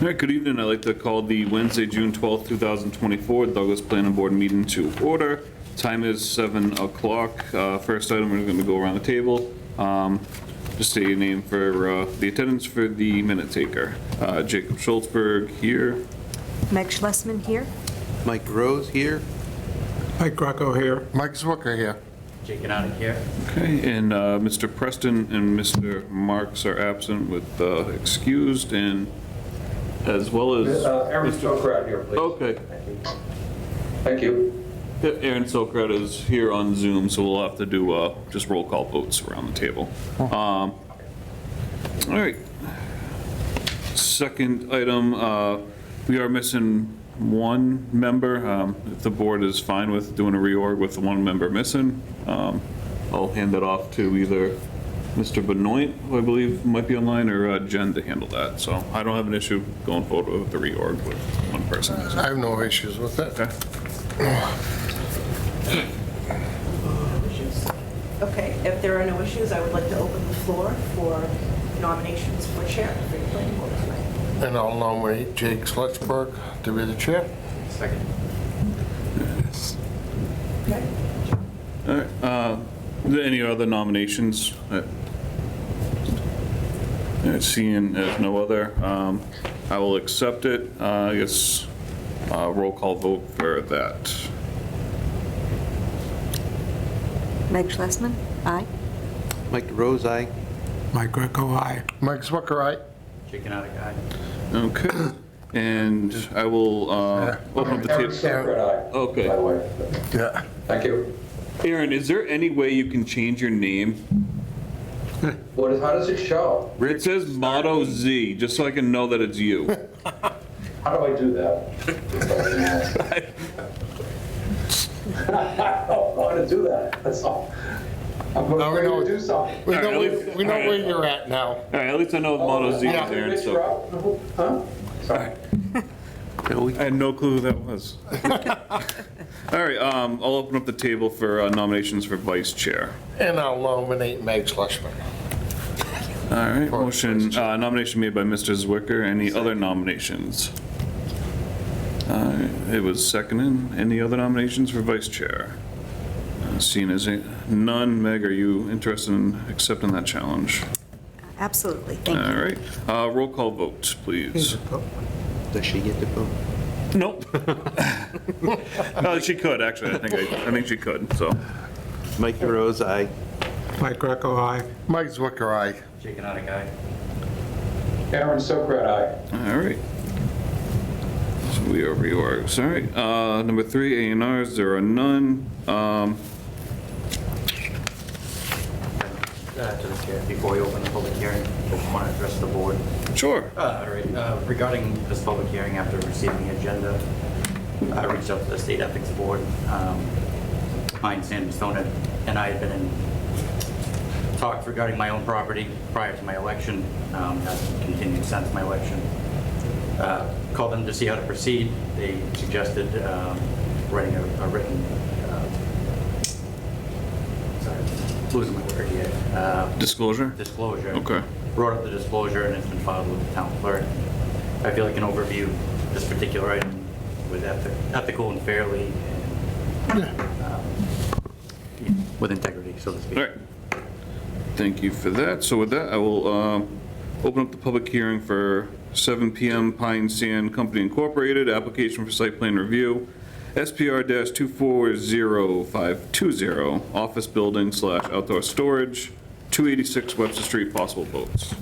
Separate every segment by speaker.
Speaker 1: All right, good evening. I'd like to call the Wednesday, June 12th, 2024 Douglas Planning Board meeting to order. Time is 7 o'clock. Uh, First item, we're going to go around the table. Um, Just state your name for uh, the attendance for the minute taker. Uh, Jacob Schultzberg here.
Speaker 2: Meg Schlesman here.
Speaker 3: Mike Rose here.
Speaker 4: Mike Rocco here.
Speaker 5: Mike Zwicker here.
Speaker 6: Jake and I here.
Speaker 1: Okay, and uh, Mr. Preston and Mr. Marks are absent with uh, excused and as well as,
Speaker 7: Uh, Aaron Stoker out here, please.
Speaker 1: okay.
Speaker 7: Thank you.
Speaker 1: Yeah, Aaron Sokrat is here on Zoom, so we'll have to do uh, just roll call votes around the table. Um, All right. Second item, uh, we are missing one member. Um, If the board is fine with doing a reorg with the one member missing, um, I'll hand that off to either Mr. Benoit, who I believe might be online, or uh, Jen to handle that. So I don't have an issue going forward with the reorg with one person missing.
Speaker 5: I have no issues with it.
Speaker 1: Okay?
Speaker 8: issues. Okay, if there are no issues, I would like to open the floor for nominations for chair for your planning board tonight.
Speaker 5: And I'll nominate Jake Slutchberg to be the chair.
Speaker 6: Second.
Speaker 8: Okay.
Speaker 1: All right, uh, are there Any other nominations? Uh, uh, Seeing as no other, um, I will accept it. Uh, I guess uh, roll call vote for that.
Speaker 2: Meg Schlesman, aye.
Speaker 3: Mike Rose, aye.
Speaker 4: Mike Greco, aye.
Speaker 5: Mike Zwicker, aye.
Speaker 6: Jake and I guy.
Speaker 1: Okay, and I will uh, open up the
Speaker 7: Aaron
Speaker 1: table.
Speaker 7: Stoker and I.
Speaker 1: Okay.
Speaker 7: By the way.
Speaker 5: Yeah.
Speaker 7: Thank you.
Speaker 1: Aaron, is there any way you can change your name?
Speaker 7: What, how does it show?
Speaker 1: It says Motto Z, just so I can know that it's you.
Speaker 7: How do I do that? Oh, I don't know how to do that, that's all. I'm
Speaker 5: No, we
Speaker 7: going
Speaker 5: know-
Speaker 7: to do something.
Speaker 5: We know, where- we know where you're at now.
Speaker 1: All right, at least I know Motto Z is Aaron,
Speaker 7: Rich
Speaker 1: so.
Speaker 7: Rob? Huh? Sorry.
Speaker 1: I had no clue who that was. All right, um, I'll open up the table for uh, nominations for vice chair.
Speaker 5: And I'll nominate Meg Schlesman.
Speaker 1: All right, motion, uh, nomination made by Mr. Zwicker. Any other nominations? Uh, It was seconded. Any other nominations for vice chair? Uh, Seeing as a- none, Meg, are you interested in accepting that challenge?
Speaker 2: Absolutely,
Speaker 1: All
Speaker 2: thank you.
Speaker 1: right, uh, roll call vote, please.
Speaker 3: Does she get to vote?
Speaker 1: Nope. Uh, She could, actually, I think, I I think she could, so.
Speaker 3: Mike Rose, aye.
Speaker 4: Mike Greco, aye.
Speaker 5: Mike Zwicker, aye.
Speaker 6: Jake and I guy.
Speaker 7: Aaron Stoker and I.
Speaker 1: All right. So we are reorgs, all right. Uh, Number three, A and Rs, there are none. Um,
Speaker 6: Uh, To the chair, before we open the public hearing, I want to address the board.
Speaker 1: Sure.
Speaker 6: Uh, all right, uh, Regarding this public hearing, after receiving the agenda, I reached out to the State Ethics Board. Um, Mine, Sam Stone, and I had been in talks regarding my own property prior to my election. Um, That's continued since my election. Uh, Called them to see how to proceed. They suggested um, writing a a written, uh, sorry, losing my word here. Uh,
Speaker 1: Disclosure?
Speaker 6: disclosure.
Speaker 1: Okay.
Speaker 6: Brought up the disclosure and it's been filed with the town clerk. I feel like an overview, this particular item was ethi- ethical and fairly and um, with integrity, so to speak.
Speaker 1: All right. Thank you for that. So with that, I will um, open up the public hearing for 7 PM Pine Sand Company Incorporated, application for site plan review, SPR-240520, office building slash outdoor storage, 286 Webster Street, possible votes.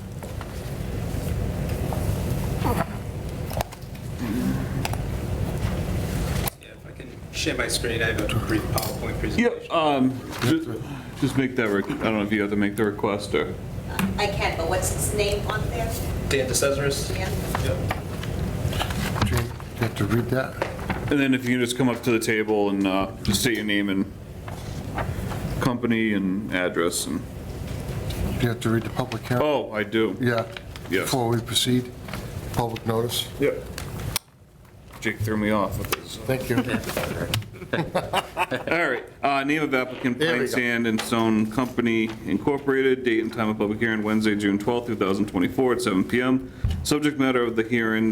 Speaker 9: Yeah, if I can share my screen, I have a brief PowerPoint presentation.
Speaker 1: Yep, um, ju- just make that, re- I don't know if you have to make the request or,
Speaker 10: I can, but what's his name on there?
Speaker 9: Dan DeCesaris?
Speaker 10: Dan?
Speaker 9: Yep.
Speaker 5: Jake, you have to read that.
Speaker 1: and then if you can just come up to the table and, uh, just state your name and company and address and,
Speaker 5: You have to read the public hearing.
Speaker 1: oh, I do,
Speaker 5: Yeah.
Speaker 1: Yes.
Speaker 5: Before we proceed, public notice.
Speaker 1: yep. Jake threw me off with this.
Speaker 5: Thank you.
Speaker 1: All right, uh, name of applicant,
Speaker 5: There we
Speaker 1: Plain
Speaker 5: go.
Speaker 1: Sand and Stone Company Incorporated, date and time of public hearing, Wednesday, June 12th, 2024, at 7 PM. Subject matter of the hearing,